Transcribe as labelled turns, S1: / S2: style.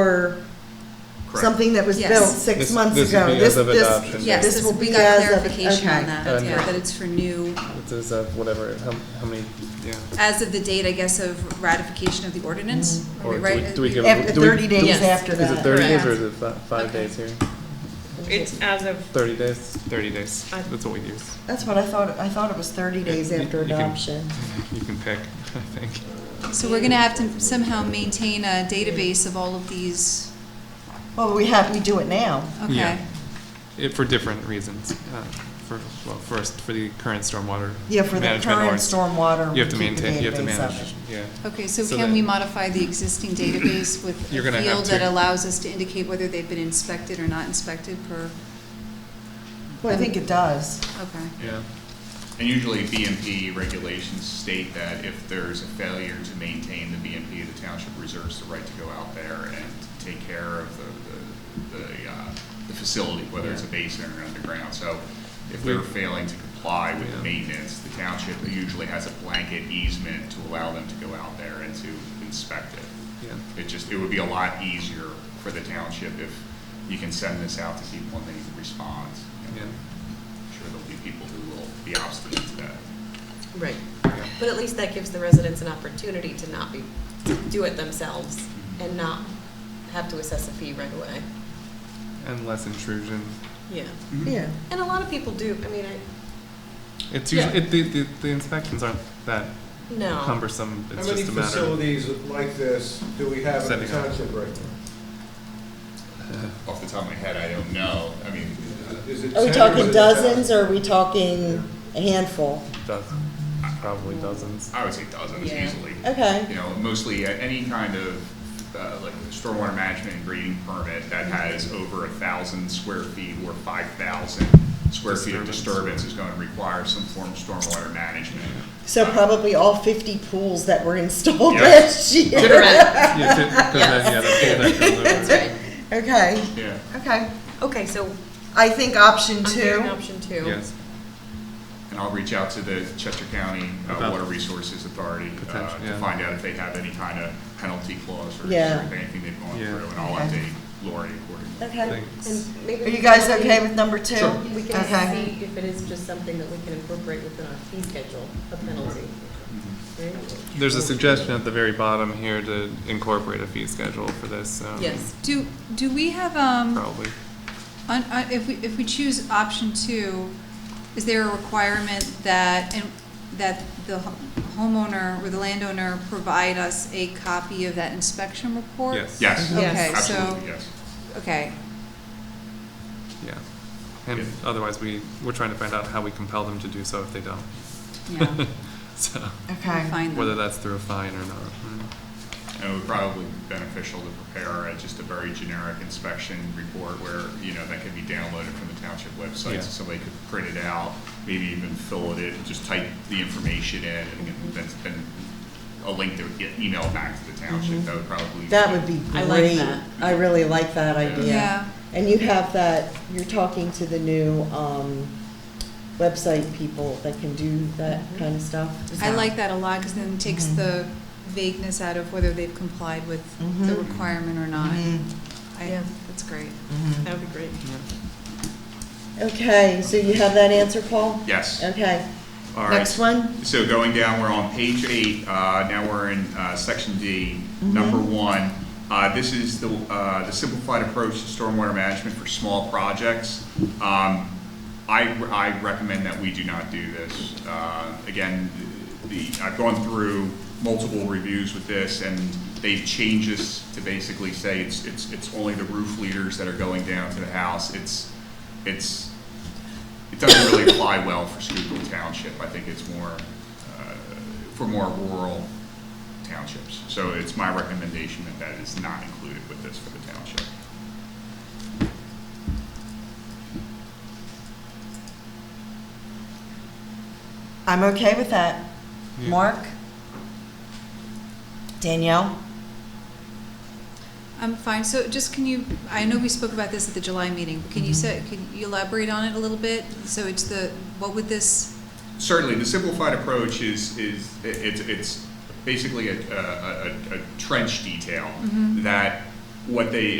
S1: or
S2: Correct.
S1: something that was
S3: Yes.
S1: built six
S4: This-
S1: months
S4: this
S1: ago.
S4: would be
S1: This
S4: as of
S1: this-
S4: adoption.
S3: Yes,
S1: this
S3: this-
S1: will
S3: we
S1: be
S3: got
S1: as of-
S3: clarification
S1: okay.
S3: on that,
S4: Okay.
S3: yeah, that it's for new,
S4: It is uh, whatever, how, how many, yeah.
S3: as of the date, I guess, of ratification of the ordinance, are
S4: Mm-hmm. Or
S3: we
S4: do
S3: right?
S4: we- do we give-
S1: After
S4: do we-
S1: thirty days
S3: Yes.
S1: after
S4: Is it
S1: that.
S4: thirty days
S3: Correct.
S4: or is it fi- five
S3: Okay.
S4: days here?
S5: It's as of,
S4: Thirty days? Thirty days, that's what we use.
S1: That's what I thought, I thought it was thirty days
S4: You-
S1: after
S4: you can-
S1: adoption.
S4: You can pick, I think.
S3: So we're gonna have to somehow maintain a database of all of these,
S1: Well, we have, we do it now.
S3: okay?
S4: Yeah. It, for different reasons, uh, for, well, first, for the current stormwater
S1: Yeah, for the
S4: management
S1: current
S4: ordinance.
S1: stormwater.
S4: You have to
S1: we keep a
S4: maintain, you have to
S1: database of
S4: manage, yeah.
S3: Okay, so
S4: So
S3: can
S4: that-
S3: we modify the existing database with
S4: You're
S3: a
S4: gonna have
S3: field that
S4: to.
S3: allows us to indicate whether they've been inspected or not inspected per,
S1: it. Well, I think it does.
S3: okay?
S4: Yeah.
S2: And usually BMP regulations state that if there's a failure to maintain the BMP, the township reserves the right to go out there and take care of the, the, the, uh, the facility, whether it's a basin or underground. So if they're
S4: We-
S2: failing to comply with
S4: Yeah.
S2: maintenance, the township usually has a blanket easement to allow them to go out there and to inspect it.
S4: Yeah.
S2: It just, it would be a lot easier for the township if you can send this out to people and they respond.
S4: Yeah.
S2: I'm sure there'll be people who will be obstinate to that.
S6: Right.
S4: Yeah.
S6: But at least that gives the residents an opportunity to not be, do it themselves and not have to assess a fee right away.
S4: And less intrusion.
S6: Yeah.
S2: Mm-hmm.
S1: Yeah.
S6: And a lot of people do, I mean, I,
S4: It's
S2: Yeah.
S4: usually, it, the, the, the inspections aren't that
S6: no.
S4: cumbersome,
S7: How
S4: it's
S7: many
S4: just a matter. of
S7: facilities like this do we have in the
S4: Setting up.
S7: township right
S2: Off the top of my head, I don't know. I mean,
S7: now? Is it
S1: Are we
S7: 10 is
S1: talking
S7: it
S1: dozens
S7: 10?
S1: or are we talking a handful?
S4: Dozens, probably dozens.
S2: I would say dozens
S6: Yeah.
S2: easily.
S1: Okay.
S2: You know, mostly uh, any kind of, uh, like stormwater management and grading permit that has over a thousand square feet or five thousand square feet of
S4: Disturbance.
S2: disturbance is going to require some form of stormwater management.
S1: So
S2: Uh,
S1: probably all fifty pools that were installed
S2: Yeah.
S1: last year.
S6: Right.
S4: Yeah, to- 'cause then, yeah, the pool deck goes over.
S6: That's right.
S1: Okay,
S2: Yeah.
S1: okay.
S6: Okay, so
S1: I think option
S6: I'm
S1: two.
S6: hearing option two.
S4: Yes,
S2: And I'll reach out to the Chester County uh,
S4: About-
S2: Water Resources Authority uh,
S4: Potential,
S2: to
S4: yeah.
S2: find out if they have any kind of penalty clause or
S1: Yeah.
S2: if anything they've gone
S4: Yeah.
S2: through, and I'll
S1: Okay.
S2: update Lori accordingly.
S1: Okay.
S4: thanks.
S6: And maybe.
S1: Are you guys okay with number two?
S4: Sure.
S6: We
S1: Okay.
S6: can see if it is just something that we can incorporate within our fee schedule, a penalty, right?
S4: There's a suggestion at the very bottom here to incorporate a fee schedule for this, so.
S6: Yes.
S3: Do, do we have, um,
S4: Probably.
S3: On, on, uh, if we, if we choose option two, is there a requirement that, and, that the ho- homeowner or the landowner provide us a copy of that inspection report?
S4: Yes.
S2: Yes,
S3: Okay, so,
S2: absolutely, yes.
S3: okay,
S4: Yeah. And
S2: Yeah.
S4: otherwise, we, we're trying to find out how we compel them to do so if they don't.
S3: yeah,
S4: So,
S1: Okay.
S3: fine then.
S4: whether that's through a fine or not. Mm.
S2: And it would probably be beneficial to prepare uh, just a very generic inspection report where, you know, that could be downloaded from the township
S4: Yeah.
S2: website, so somebody could print it out, maybe even fill it in, just type the information in, and then- then, then a link to get email back to the township, that would probably.
S1: Mm-hmm. That would be
S6: I like
S1: great.
S6: that.
S1: I really like that idea.
S3: Yeah.
S1: And you have that, you're talking to the new, um, website people that can do that
S6: Mm-hmm.
S1: kind of stuff. Is
S3: I like that a lot, because then it takes the vagueness out of whether they've complied with the
S1: Mhm.
S3: requirement or not.
S1: Mhm.
S3: I,
S6: Yeah.
S3: that's great.
S6: That would be great.
S1: Okay, so you have that answer, Paul?
S2: Yes.
S1: Okay.
S2: All right.
S1: Next one?
S2: So going down, we're on page eight, uh, now we're in, uh, section D, number one. Uh, this is the, uh, the simplified approach to stormwater management for small projects. Um, I, I recommend that we do not do this. Uh, again, the, I've gone through multiple reviews with this, and they've changed this to basically say it's, it's, it's only the roof leaders that are going down to the house. It's, it's, it doesn't really apply well for Schuylkill Township. I think it's more, uh, for more rural townships. So it's my recommendation that that is not included with this for the township.
S1: I'm okay with that.
S4: Yeah.
S1: Mark? Danielle?
S3: I'm fine, so just can you, I know we spoke about this at the July meeting, but can you say, can you elaborate on it a little bit? So it's the, what would this?
S2: Certainly, the simplified approach is, is, it's, it's basically a, a, a- a trench detail that what they